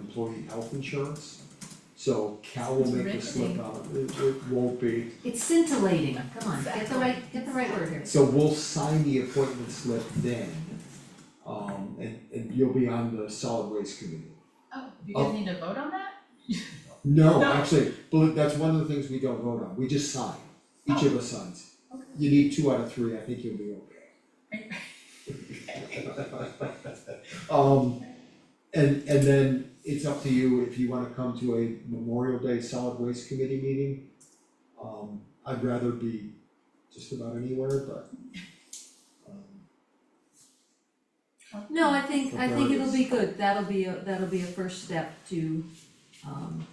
employee health insurance. So Cal will make a slip Riveting. out, it it won't be, It's scintillating, come on, get the Exactly. right, get the right word here. so we'll sign the appointment slip then. Um and and you'll be on the solid waste committee. Oh, You Oh. guys need to vote on that? No, No. actually, but that's one of the things we don't vote on, we just sign, each of us signs. Okay. You need two out of three, I think you'll be okay. Um, and and then it's up to you if you wanna come to a Memorial Day Solid Waste Committee meeting. Um, I'd rather be just about anywhere, but um, No, I think, I think it'll Regardless. be good, that'll be, a that'll be a first step to, um,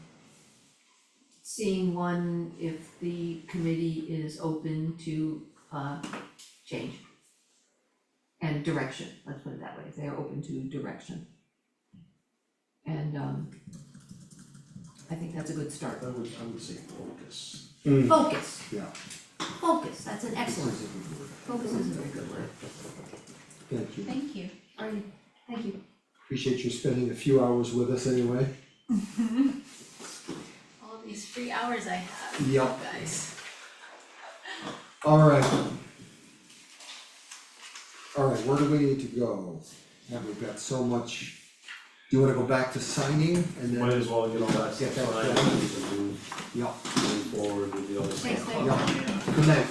seeing one, if the committee is open to, uh, change. And direction, let's put it that way, if they're open to direction. And, um, I think that's a good start. I would, I would say focus. Focus, yeah, focus, that's an this excellent, is a good word. focus is a very good word. Thank you, Thank you. All right, thank you. appreciate you spending a few hours with us anyway. All these free hours I have, you Yep. guys. Alright. Alright, where do we need to go? Yeah, we've got so much, do you wanna go back to signing and Might then, as well get all that Get that stuff signed done. and move, yeah, move forward with the other stuff. Thanks, Nick. yeah, good night.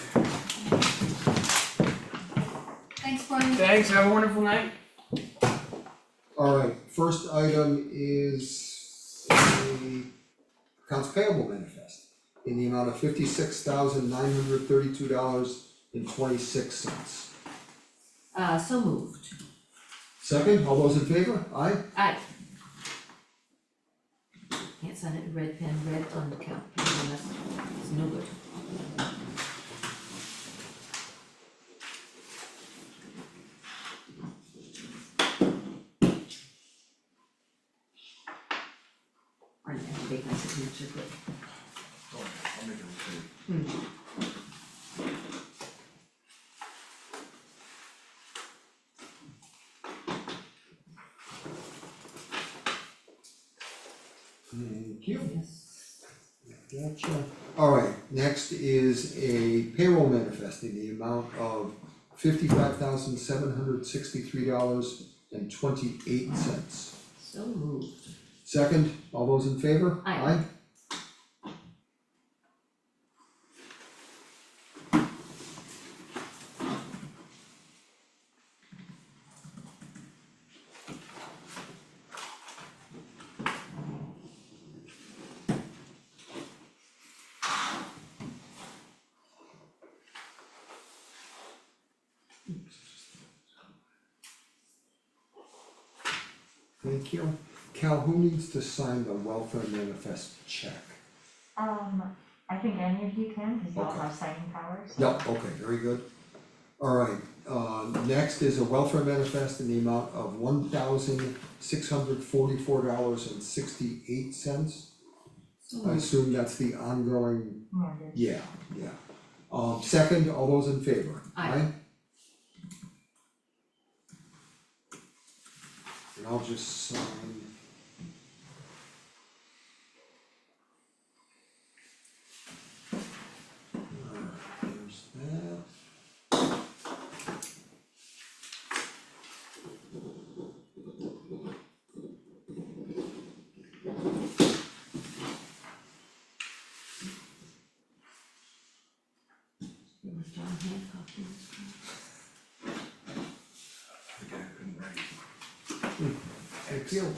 Thanks, Brian. Thanks, have a wonderful night. Alright, first item is a accounts payable manifest in the amount of fifty-six thousand nine hundred thirty-two dollars and twenty-six cents. Uh, so moved. Second, all those in favor? Aye? Aye. Can't sign it with red pen, red on the count, that's, it's no good. Or I have to make my signature quick. Thank you. Yes. Gotcha. Alright, next is a payroll manifest in the amount of fifty-five thousand seven hundred sixty-three dollars and twenty-eight cents. So moved. Second, all those in favor? Aye. Thank you. Cal, who needs to sign the welfare manifest check? Um, I think any of you can, cause you all Okay. have signing powers. Yep, okay, very good. Alright, uh, next is a welfare manifest in the amount of one thousand six hundred forty-four dollars and sixty-eight cents. So I moved. assume that's the ongoing, Mortgage. yeah, yeah. Um, second, all those in favor? Aye. And I'll just sign. Alright, There's that. It was John Hancock, it was- Thank you.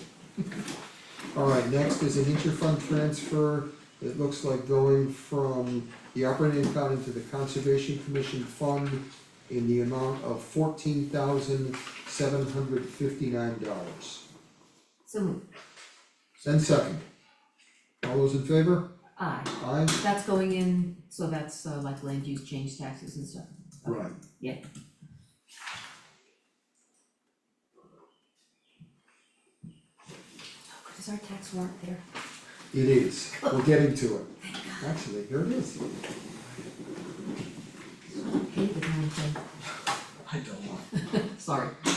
Alright, next is an interfund transfer, it looks like going from the operating account into the conservation commission fund in the amount of fourteen thousand seven hundred fifty-nine dollars. So moved. And second, all those in favor? Aye. Aye? That's going in, so that's uh, like land use change taxes and stuff. Right. Yeah. Oh, good, is our tax warrant there? It is, we're getting to it. Actually, here it is. Hate the darn thing. I don't want. sorry.